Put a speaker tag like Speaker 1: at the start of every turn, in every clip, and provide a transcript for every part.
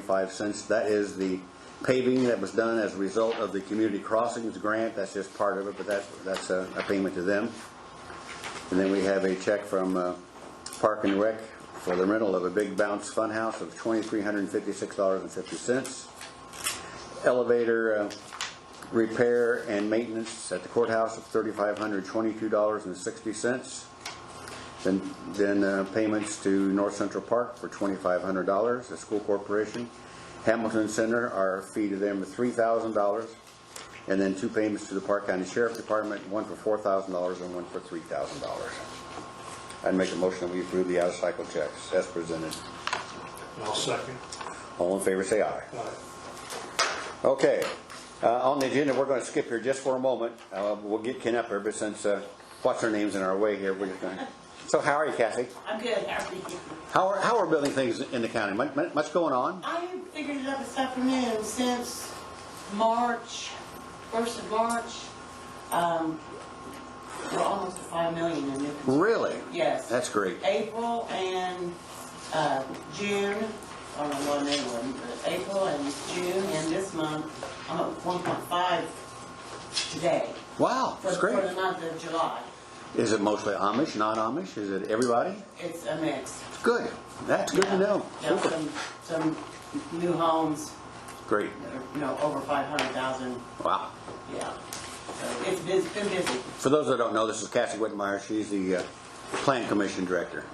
Speaker 1: five cents. That is the paving that was done as a result of the community crossings grant. That's just part of it, but that's, that's a a payment to them. And then we have a check from uh, Park and Rec for the rental of a Big Bounce Funhouse of $2,356.50. Elevator uh, repair and maintenance at the courthouse of $3,522.60. Then, then uh, payments to North Central Park for twenty-five hundred dollars, the school corporation. Hamilton Center, our fee to them is three thousand dollars. And then two payments to the Park County Sheriff Department, one for four thousand dollars and one for three thousand dollars. I'd make a motion that we approve the out-of-cycle checks as presented.
Speaker 2: And I'll second.
Speaker 1: All in favor, say aye.
Speaker 2: Aye.
Speaker 1: Okay, uh, on the agenda, we're gonna skip here just for a moment. Uh, We'll get Ken up here, but since, uh, what's her name's in our way here, we're just gonna, so how are you, Kathy?
Speaker 3: I'm good, how are you?
Speaker 1: How are, how are building things in the county? Much, much going on?
Speaker 3: I figured it out this afternoon, since March, first of March, um, we're almost to five million in new construction.
Speaker 1: Really?
Speaker 3: Yes.
Speaker 1: That's great.
Speaker 3: April and, uh, June, I don't know what they were, but April and June and this month, I'm at one point five today.
Speaker 1: Wow,
Speaker 3: for-
Speaker 1: that's great.
Speaker 3: For the month of July,
Speaker 1: Is it mostly Amish, non-Amish? Is it everybody?
Speaker 3: it's a mix.
Speaker 1: Good. That's good to know.
Speaker 3: Yeah,
Speaker 1: Super.
Speaker 3: some, some new homes,
Speaker 1: Great.
Speaker 3: that are, you know, over five hundred thousand
Speaker 1: Wow.
Speaker 3: Yeah, so it's been, been busy.
Speaker 1: For those that don't know, this is Cassie Whitmire. She's the uh, Plan Commission Director.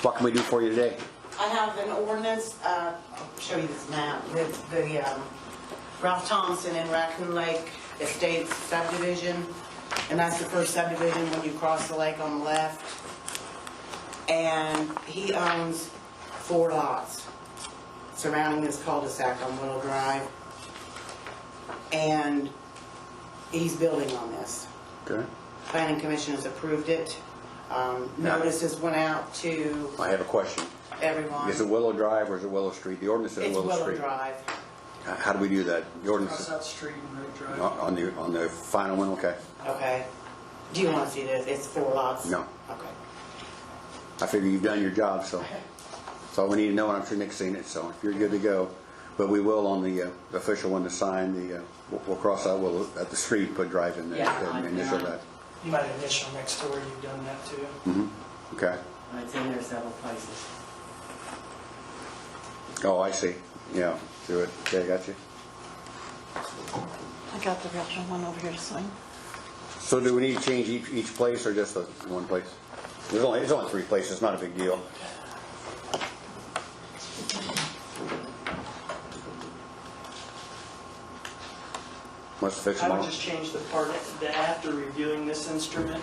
Speaker 1: What can we do for you today?
Speaker 3: I have an ordinance, uh, I'll show you this map, the, the, um, Ralph Thompson in Raccoon Lake Estates subdivision. And that's the first subdivision when you cross the lake on the left. And he owns four lots surrounding this cul-de-sac on Willow Drive. And he's building on this.
Speaker 1: Okay.
Speaker 3: Planning Commission has approved it. Um,
Speaker 1: Yeah.
Speaker 3: Notices went out to
Speaker 1: I have a question.
Speaker 3: everyone.
Speaker 1: Is it Willow Drive or is it Willow Street? The ordinance is
Speaker 3: It's
Speaker 1: Willow
Speaker 3: Willow
Speaker 1: Street.
Speaker 3: Drive.
Speaker 1: Uh, How do we do that? The ordinance
Speaker 4: Cross
Speaker 1: is
Speaker 4: out street and Road Drive.
Speaker 1: on on the, on the final one? Okay.
Speaker 3: Okay. Do you want to see this? It's four lots?
Speaker 1: No.
Speaker 3: Okay.
Speaker 1: I figure you've done your job, so that's all we need to know, and I'm sure Nick's seen it, so if you're good to go. But we will on the uh, official one to sign the, uh, we'll- we'll cross out, we'll, at the street, put drive in there.
Speaker 3: Yeah,
Speaker 1: and
Speaker 3: I'm
Speaker 1: initial
Speaker 3: done.
Speaker 1: that.
Speaker 4: You might initial next to where you've done that too.
Speaker 1: Okay.
Speaker 3: It's in there several places.
Speaker 1: Oh, I see. Yeah, do it. Okay, got you.
Speaker 5: I got the original one over here to sign.
Speaker 1: So do we need to change each, each place or just the one place? There's only, it's only three places, it's not a big deal. Must fix
Speaker 4: I
Speaker 1: them
Speaker 4: would
Speaker 1: all
Speaker 4: just change the part that after reviewing this instrument,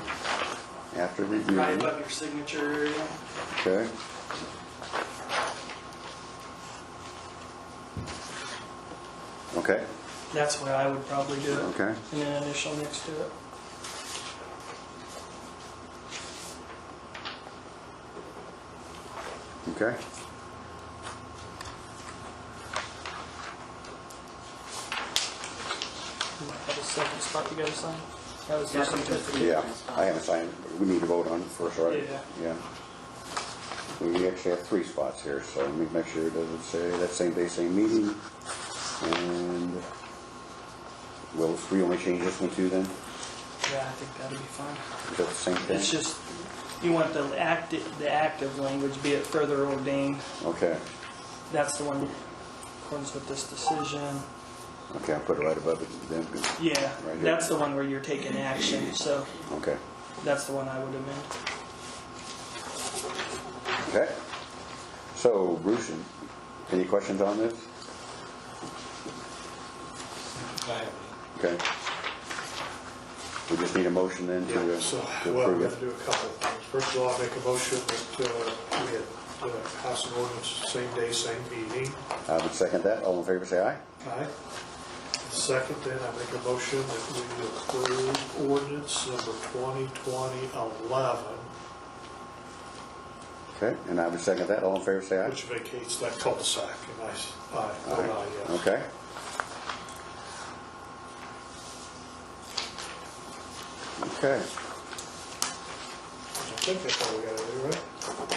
Speaker 1: after
Speaker 4: right
Speaker 1: reviewing.
Speaker 4: above your signature area.
Speaker 1: Okay. Okay,
Speaker 4: That's where I would probably do it.
Speaker 1: okay.
Speaker 4: And then initial next to it.
Speaker 1: Okay.
Speaker 4: You might have a second spot you gotta sign. That was just
Speaker 1: Yeah, I haven't signed, but we need to vote on it first, right?
Speaker 4: Yeah.
Speaker 1: Yeah. We actually have three spots here, so let me make sure it doesn't say that same day, same meeting. And, well, if we only change this one too then?
Speaker 4: Yeah, I think that'd be fine.
Speaker 1: Is that the same thing?
Speaker 4: It's just, you want the active, the active language, be it further ordained.
Speaker 1: Okay, that's
Speaker 4: That's the one, in accordance with this decision.
Speaker 1: okay, I'll put it right above it then.
Speaker 4: Yeah,
Speaker 1: Right here.
Speaker 4: that's the one where you're taking action, so
Speaker 1: Okay,
Speaker 4: that's the one I would amend.
Speaker 1: okay. So Bruce, any questions on this? Okay. We just need a motion then to
Speaker 2: Yeah,
Speaker 1: to
Speaker 2: so, well,
Speaker 1: approve
Speaker 2: we're
Speaker 1: it.
Speaker 2: gonna do a couple of things. First of all, I make a motion that uh, we had uh, pass an ordinance, same day, same meeting.
Speaker 1: I would second that. All in favor, say aye.
Speaker 2: Aye. Second, then, I make a motion that we approve ordinance number 2020-11,
Speaker 1: Okay, and I would second that. All in favor, say aye.
Speaker 2: which vacates that cul-de-sac. And I, uh, s- aye, vote
Speaker 1: Aye.
Speaker 2: aye, yes.
Speaker 1: Okay. Okay,
Speaker 2: I think that's all we gotta do, right?